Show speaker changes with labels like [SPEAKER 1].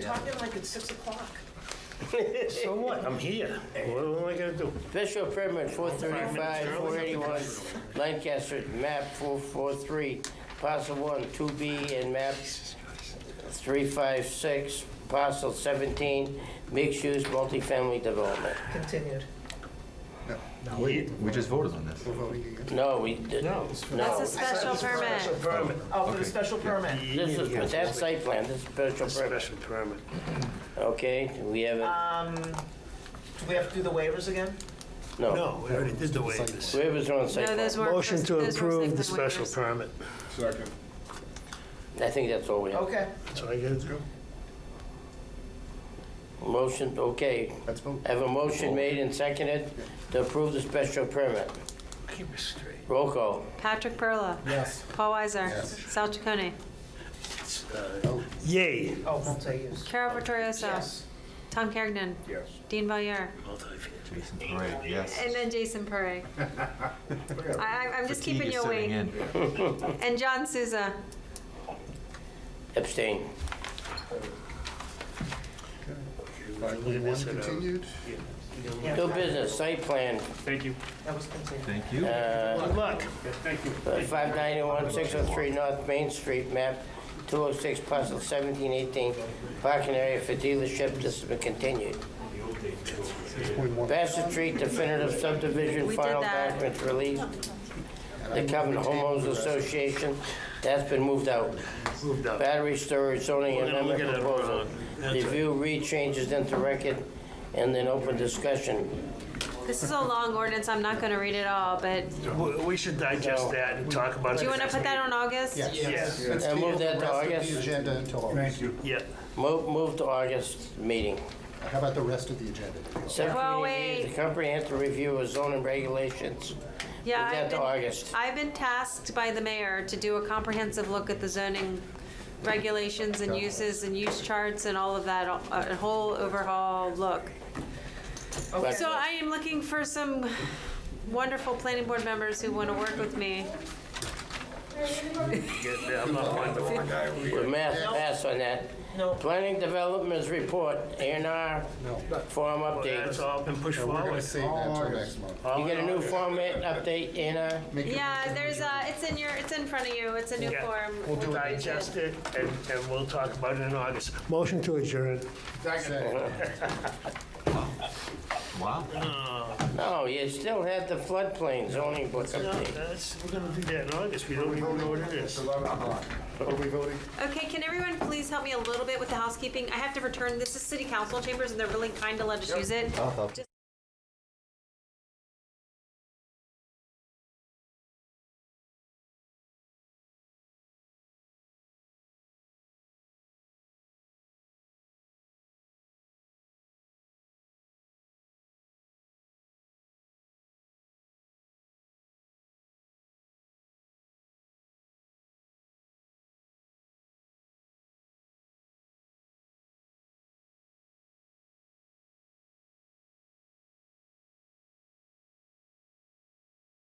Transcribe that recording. [SPEAKER 1] Stop in like at 6 o'clock.
[SPEAKER 2] So what? I'm here. What am I gonna do?
[SPEAKER 3] Special permit four thirty-five, four eighty-one, Lancaster, map four four three, parcel one, two B, and map three five six, parcel seventeen, mixed-use multifamily development.
[SPEAKER 1] Continued.
[SPEAKER 4] We we just voted on this.
[SPEAKER 5] Oh,
[SPEAKER 3] No, we, did- no.
[SPEAKER 5] That's a special
[SPEAKER 1] Special
[SPEAKER 5] permit.
[SPEAKER 1] permit. Oh, for the special permit.
[SPEAKER 3] This is, but that's site plan, this is special permit,
[SPEAKER 2] Special permit.
[SPEAKER 3] okay? We have a,
[SPEAKER 1] Do we have to do the waivers again?
[SPEAKER 3] no.
[SPEAKER 2] No, we already did the waivers.
[SPEAKER 3] Whoever's on site
[SPEAKER 5] No,
[SPEAKER 3] plan.
[SPEAKER 5] those weren't.
[SPEAKER 2] Oh. Motion to
[SPEAKER 5] those weren't
[SPEAKER 2] approve the
[SPEAKER 5] site plan
[SPEAKER 2] special
[SPEAKER 5] waivers.
[SPEAKER 2] permit.
[SPEAKER 6] Second.
[SPEAKER 3] I think that's all we have.
[SPEAKER 1] Okay.
[SPEAKER 2] That's what I gotta do.
[SPEAKER 3] Motion, okay.
[SPEAKER 6] Let's vote.
[SPEAKER 3] I have a motion made and seconded to approve the special permit.
[SPEAKER 2] Keep it straight.
[SPEAKER 3] Roll call.
[SPEAKER 5] Patrick Perla.
[SPEAKER 1] Yes.
[SPEAKER 5] Paul Weiser.
[SPEAKER 6] Yes.
[SPEAKER 5] Sal Chaconi.
[SPEAKER 2] uh, Yay.
[SPEAKER 1] Oh, multi-use.
[SPEAKER 5] Carol Vittorioso.
[SPEAKER 1] Yes.
[SPEAKER 5] Tom Kergnen.
[SPEAKER 6] Yes.
[SPEAKER 5] Dean Valier.
[SPEAKER 4] Jason Parra, yes.
[SPEAKER 5] And then Jason Perre. I, I- I'm just keeping
[SPEAKER 4] Fatigue
[SPEAKER 5] you
[SPEAKER 4] is setting
[SPEAKER 5] awake.
[SPEAKER 4] in.
[SPEAKER 5] And John Souza.
[SPEAKER 3] Abstain.
[SPEAKER 2] Look at this, and, uh,
[SPEAKER 6] Continued.
[SPEAKER 1] Yeah,
[SPEAKER 3] New business, site plan,
[SPEAKER 1] That was continued.
[SPEAKER 4] Thank you.
[SPEAKER 3] uh,
[SPEAKER 2] Good luck.
[SPEAKER 3] five ninety-one, six oh three North Main Street, map two oh six, parcel seventeen eighteen, parking area for dealership, this has been continued. Bassett Street definitive subdivision,
[SPEAKER 5] We did
[SPEAKER 3] final
[SPEAKER 5] that.
[SPEAKER 3] documents released. The Covenant Homeowners Association, that's been moved out.
[SPEAKER 2] Moved up.
[SPEAKER 3] Battery storage zoning
[SPEAKER 2] We're gonna look
[SPEAKER 3] amendment
[SPEAKER 2] at it,
[SPEAKER 3] proposal.
[SPEAKER 2] uh, that's right.
[SPEAKER 3] Review, read changes into record, and then open discussion.
[SPEAKER 5] This is a long ordinance. I'm not going to read it all, but
[SPEAKER 2] We- We should digest that and talk about it.
[SPEAKER 5] do you want to put that on August?
[SPEAKER 2] Yes.
[SPEAKER 6] Let's
[SPEAKER 3] And
[SPEAKER 6] table
[SPEAKER 3] move that to
[SPEAKER 6] the rest of
[SPEAKER 3] August.
[SPEAKER 6] The agenda until August.
[SPEAKER 2] Yeah.
[SPEAKER 3] Move, move to August meeting.
[SPEAKER 6] How about the rest of the agenda?
[SPEAKER 3] Subcommittee
[SPEAKER 5] Well, wait.
[SPEAKER 3] needs a comprehensive review of zoning regulations.
[SPEAKER 5] Yeah,
[SPEAKER 3] Move that
[SPEAKER 5] I've
[SPEAKER 3] to
[SPEAKER 5] been-
[SPEAKER 3] August.
[SPEAKER 5] I've been tasked by the mayor to do a comprehensive look at the zoning regulations and uses and use charts and all of that, a a whole overhaul look.
[SPEAKER 3] But-
[SPEAKER 5] So I am looking for some wonderful planning board members who want to work with me.
[SPEAKER 2] Yeah, I'm not wonderful.
[SPEAKER 3] With math, pass on that.
[SPEAKER 1] No.
[SPEAKER 3] Planning Developments Report, A and R, form
[SPEAKER 2] That's
[SPEAKER 3] update.
[SPEAKER 2] all been pushed
[SPEAKER 6] We're
[SPEAKER 2] forward.
[SPEAKER 6] gonna save that until next month.
[SPEAKER 2] All
[SPEAKER 3] You get a
[SPEAKER 2] in
[SPEAKER 3] new
[SPEAKER 2] order.
[SPEAKER 3] format update, A and R?
[SPEAKER 6] Make it-
[SPEAKER 5] Yeah, there's a, it's in your, it's in front of you, it's a new
[SPEAKER 2] Yeah.
[SPEAKER 5] form.
[SPEAKER 2] We'll digest it and, and we'll talk about it in August. Motion to adjourn.
[SPEAKER 6] Second.
[SPEAKER 4] Wow.
[SPEAKER 3] No, Oh, you still had the floodplain zoning book update.
[SPEAKER 2] That's, we're gonna do that in August. We don't even know what it is.
[SPEAKER 6] Are we voting?
[SPEAKER 5] Okay, can everyone please help me a little bit with the housekeeping? I have to return, this is city council chambers and they're really kind to let us use it.